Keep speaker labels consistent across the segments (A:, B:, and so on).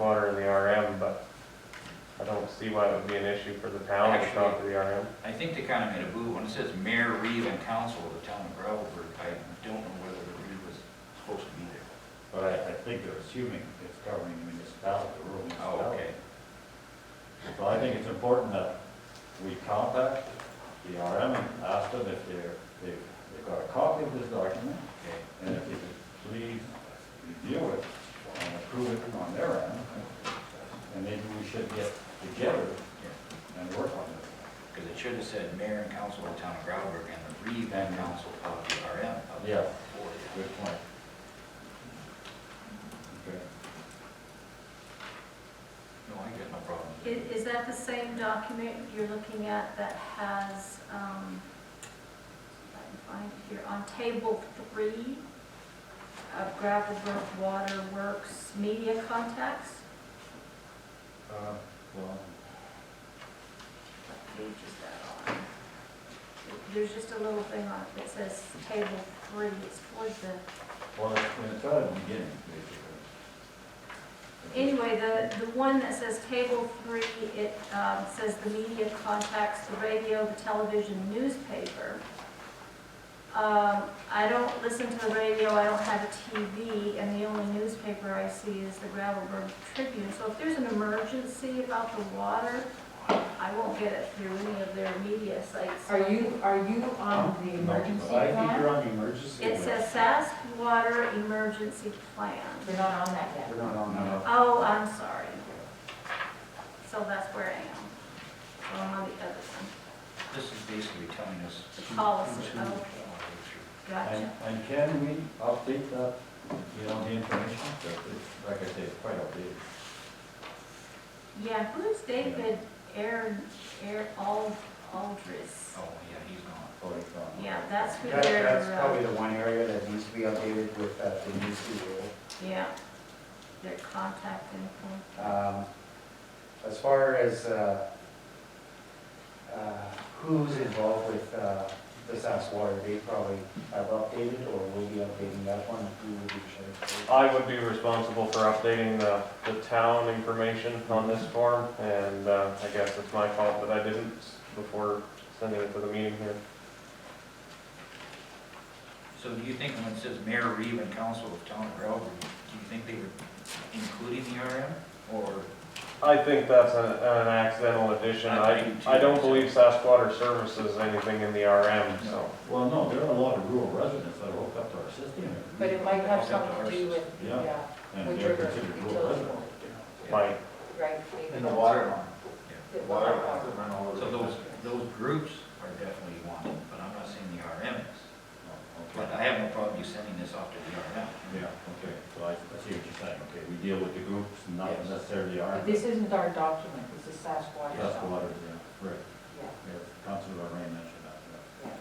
A: water in the RM, but I don't see why it would be an issue for the town to talk to the RM.
B: I think they kind of made a boo when it says Mayor Reed and Council of the Town of Gravelburg. I don't know whether the Reed was supposed to be there.
C: But I, I think they're assuming it's covering the municipality, the rural
B: Oh,
C: municipality.
B: okay.
C: So I think it's important that we contact the RM and ask them if they're, they've, they've got a copy of this document,
B: Okay.
C: and if they could please review it and approve it on their end. And maybe we should get together and work on this.
B: Because it should have said Mayor and Council of the Town of Gravelburg and the Reed and Council of the RM. of the
C: Yeah.
B: board.
C: Good point. Okay.
B: No, I got no problem.
D: I- Is that the same document you're looking at that has, um, if I can find it here, on table three of Gravelburg Water Works media contacts?
C: Uh, Well,
D: What page is that on? There's just a little thing on it that says table three, it's towards the
C: well, it's it's at the beginning, basically.
D: Anyway, the, the one that says table three, it um, says the media contacts the radio, the television, newspaper. Um, I don't listen to the radio, I don't have a TV, and the only newspaper I see is the Gravelburg Tribune. So if there's an emergency about the water, I won't get it through any of their media sites.
E: Are you, are you on the emergency
F: But I think
E: plan?
F: you're on the emergency.
D: It
F: list.
D: says SAS Water Emergency Plan.
E: You're not on that yet.
F: We're not on
C: No.
F: that.
D: Oh, I'm sorry. So that's where I am. So I'm on the other one.
B: This is basically telling us.
D: The
B: who-
D: policy,
B: who's who.
D: okay.
C: And,
D: Gotcha.
C: and can we update that, you know, the information, So it's, like I say, it's quite outdated.
D: Yeah, who's David Aaron, Aaron Ald, Aldris?
B: Oh, yeah, he's gone.
C: Oh, it's on.
D: Yeah, that's who
F: That, that's
D: they're,
F: probably
D: uh,
F: the one area that needs to be updated with uh, the new rule.
D: yeah, their contact info.
F: Um, As far as uh, uh, who's involved with uh, the SAS water, they probably have updated or will be updating that one. Who will be sharing?
A: I would be responsible for updating the, the town information on this form, and uh, I guess it's my fault that I didn't before sending it to the meeting here.
B: So do you think when it says Mayor Reed and Council of Town of Gravelburg, do you think they were including the RM? Or
A: I think that's an, an accidental addition.
B: I
A: I,
B: think too.
A: I don't believe Sask Water Services anything in the RM, so.
C: Well, no, there are a lot of rural residents that are hooked up to our system,
E: But it might have something to do with the, uh,
C: Yeah. and
E: with
C: they're
E: your
C: considered rural
E: utility,
C: residents.
A: Mike,
E: right?
G: And the water line.
E: The
G: Water
E: water.
G: lines that run all over.
B: So
G: the
B: those,
G: country.
B: those groups are definitely wanted, but I'm not saying the RM is.
C: Oh,
B: But
C: Okay,
B: I have no problem you sending this off to the RM.
C: yeah, okay, so I, I see what you're saying, okay, we deal with the groups, not
B: Yes.
C: necessarily our,
E: But this isn't our document, this is SAS water.
C: that's the water, yeah, right,
E: Yeah,
C: yeah, Councilor Rain mentioned that, yeah.
E: yeah.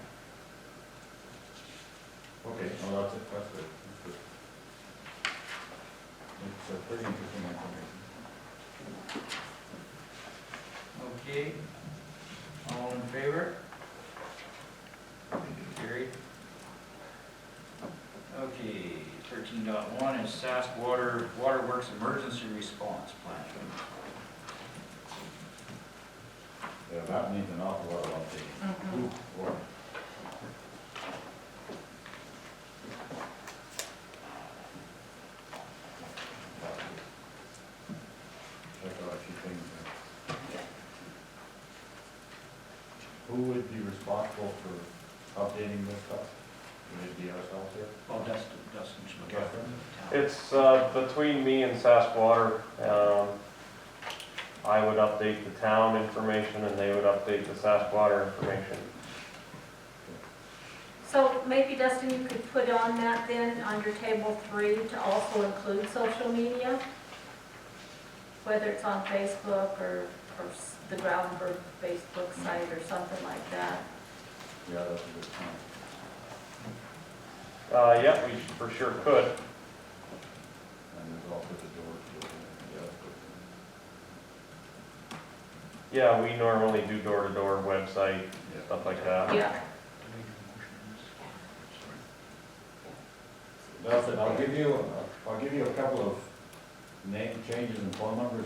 C: Okay, well, that's it, that's good, that's good. It's uh, pretty interesting information.
B: Okay, all in favor? Carried. Okay, thirteen dot one is SAS Water, Waterworks Emergency Response Plan.
C: Yeah, that needs an awful lot of updating.
D: Mm-hmm.
C: Ooh, boy. Check out a few things there. Who would be responsible for updating this stuff? Would it be ourselves here?
B: Oh, Dustin, Dustin should look after the town.
A: It's uh, between me and Sask Water. Um, I would update the town information and they would update the Sask Water information.
D: So maybe Dustin, you could put on that then, under table three, to also include social media? Whether it's on Facebook or, or s- the Gravelburg Facebook site or something like that.
C: Yeah, that's a good point.
A: Uh, yeah, we for sure could.
C: And there's also the door to it. Yeah, that's
A: Yeah,
C: good.
A: we normally do door-to-door website, stuff like that.
D: Yeah.
C: That's it, I'll give you, I'll give you a couple of name changes and phone numbers